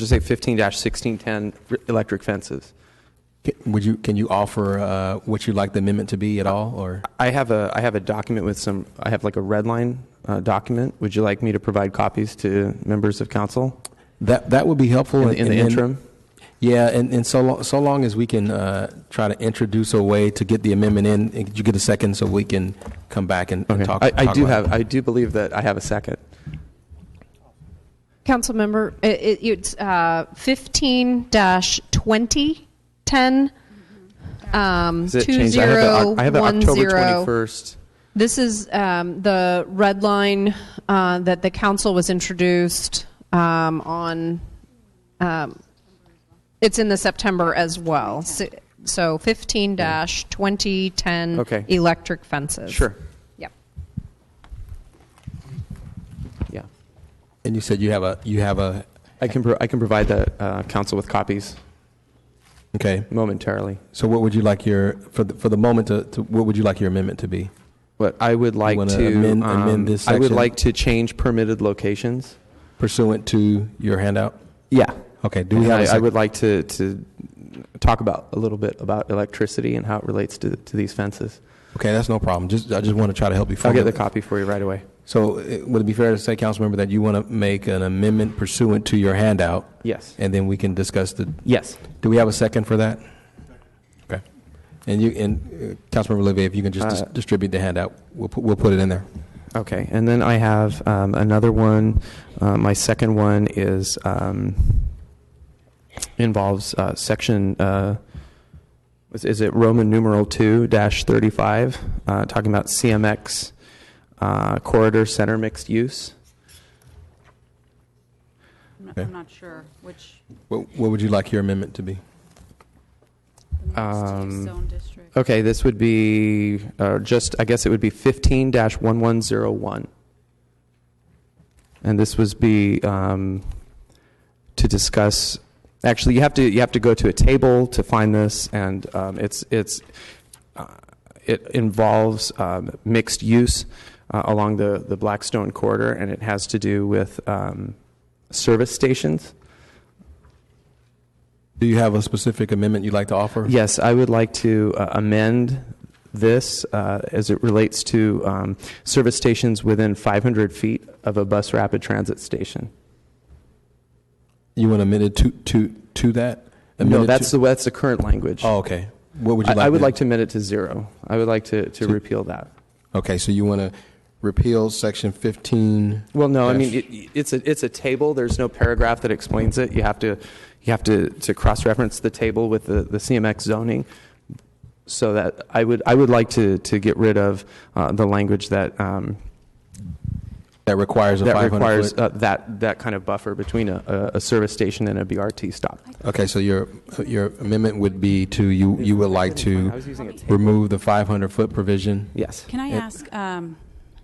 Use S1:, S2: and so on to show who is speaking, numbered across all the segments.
S1: Just say fifteen sixteen ten electric fences.
S2: Ca- Would you, can you offer uh, what you'd like the amendment to be at all, or?
S1: I have a I have a document with some. I have like a red line uh, document. Would you like me to provide copies to members of council
S2: That, that would be helpful.
S1: in,
S2: and-
S1: in the
S2: and then-
S1: interim?
S2: Yeah, and, and so, lo- so long as we can uh, try to introduce a way to get the amendment in, and could you get a second so we can come back and and
S1: Okay.
S2: talk?
S1: I, I
S2: talk
S1: do
S2: about it?
S1: have. I do believe that I have a second.
S3: Councilmember, it, it, it's uh, 15 2010. Um,
S1: Is it changed? I have the, I have the October
S3: 2010.
S1: twenty first.
S3: This is um, the red line uh, that the council was introduced um, on. Um, it's in the September as well. So, so 15 2010
S1: Okay.
S3: electric fences.
S1: Sure.
S3: Yep.
S1: Yeah.
S2: And you said you have a, you have a,
S1: I can pro- I can provide the uh, council with copies
S2: okay.
S1: momentarily.
S2: So what would you like your, for the, for the moment, to, to- what would you like your amendment to be?
S1: But I would like
S2: wanna
S1: to um,
S2: amend- amend this
S1: I would
S2: section?
S1: like to change permitted locations.
S2: Pursuant to your handout?
S1: Yeah.
S2: Okay, do we have a
S1: I, I
S2: second?
S1: would like to, to talk about a little bit about electricity and how it relates to, to these fences.
S2: Okay, that's no problem. Just, I just want to try to help you.
S1: I'll get the
S2: formulate-
S1: copy for you right away.
S2: So uh, would it be fair to say, Councilmember, that you want to make an amendment pursuant to your handout?
S1: Yes.
S2: And then we can discuss the,
S1: Yes.
S2: do we have a second for that? Okay. And you, and uh, Councilmember Olivier, if you can just dis-
S1: Uh,
S2: distribute the handout, we'll, pu- we'll put it in there.
S1: Okay. And then I have um, another one. Uh, my second one is um, involves uh, section. Uh, is, is it Roman numeral two dash thirty five? Uh, talking about CMX uh, corridor center mixed use.
S4: I'm not-
S2: Okay.
S4: I'm not sure which,
S2: What, what would you like your amendment to be?
S4: the
S1: Um,
S4: mixed-use zone district.
S1: Okay, this would be uh, just, I guess it would be 15 1101. And this was be um, to discuss. Actually, you have to you have to go to a table to find this, and um, it's it's uh, it involves um, mixed use uh, along the the Blackstone corridor, and it has to do with um, service stations.
S2: Do you have a specific amendment you'd like to offer?
S1: Yes, I would like to uh, amend this uh, as it relates to um, service stations within 500 feet of a bus rapid transit station.
S2: You want amended to, to, to that?
S1: No,
S2: Amended
S1: that's
S2: to-
S1: the, that's the current language.
S2: Oh, okay. What would you
S1: I
S2: like?
S1: I would
S2: to-
S1: like to amend it to zero. I would like to, to
S2: To-
S1: repeal that.
S2: Okay, so you want to repeal section 15?
S1: Well, no, I mean,
S2: Yes.
S1: it- it's a, it's a table. There's no paragraph that explains it. You have to, you have to, to cross-reference the table with the, the CMX zoning. So that, I would, I would like to, to get rid of uh, the language that, um,
S2: That requires a
S1: that
S2: 500
S1: requires
S2: foot-
S1: uh, that, that kind of buffer between a- a, a service station and a BRT stop.
S2: Okay, so your, your amendment would be to, you, you would like
S1: I was
S2: to
S1: using a
S2: remove the 500-foot provision?
S1: Yes.
S4: Can I
S2: it-
S4: ask um,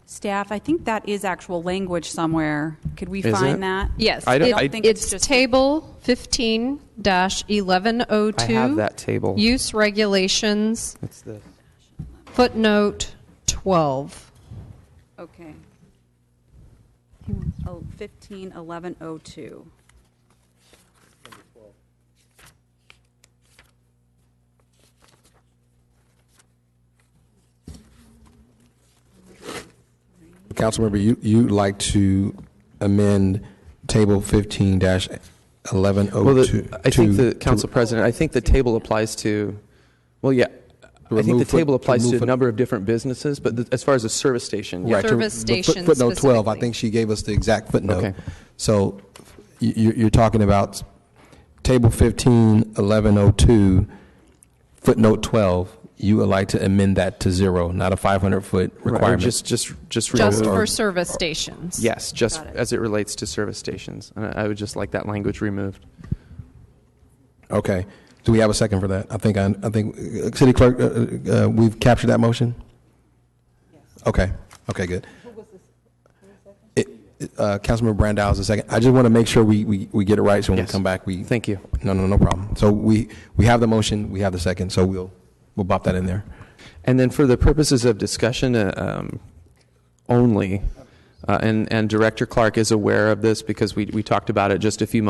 S4: staff, I think that is actual language somewhere. Could we
S1: Is it?
S4: find that?
S3: Yes.
S1: I don't-
S3: it-
S1: I-
S4: think it's
S3: it's,
S4: just-
S3: table 15 1102.
S1: I have that table.
S3: Use regulations,
S1: It's the-
S3: footnote 12.
S4: Okay. Oh, 15, 1102.
S2: Councilmember, you, you'd like to amend Table 15 dash
S1: Well,
S2: 1102?
S1: the- I think the, Council President, I think the table applies to, well, yeah, I think the
S2: remove foot-
S1: table
S2: to
S1: applies to
S2: remove
S1: a
S2: foot-
S1: number of different businesses, but the- as far as a service station, yeah.
S2: Right, to-
S3: Service
S2: the foot-
S3: station
S2: Footnote 12, I
S3: specifically.
S2: think she gave us the exact footnote.
S1: Okay.
S2: So you, you're- you're talking about Table 15, 1102, footnote 12, you would like to amend that to zero, not a 500-foot
S1: Or
S2: requirement?
S1: Just, just, just.
S3: Just
S1: remove-
S2: or-
S3: for service stations.
S1: Yes, just
S4: Got it.
S1: as it relates to service stations. And I I would just like that language removed.
S2: Okay. Do we have a second for that? I think, I I think, uh, City Clerk, uh, uh, uh, we've captured that motion? Okay, okay, good. It- it, uh, Councilmember Brandow is the second. I just want to make sure we, we we get it right, so when we
S1: Yes.
S2: come back, we.
S1: Thank you.
S2: No, no, no problem. So we, we have the motion, we have the second, so we'll, we'll bop that in there.
S1: And then for the purposes of discussion uh, um, only, uh, and, and Director Clark is aware of this because we, we talked about it just a few moments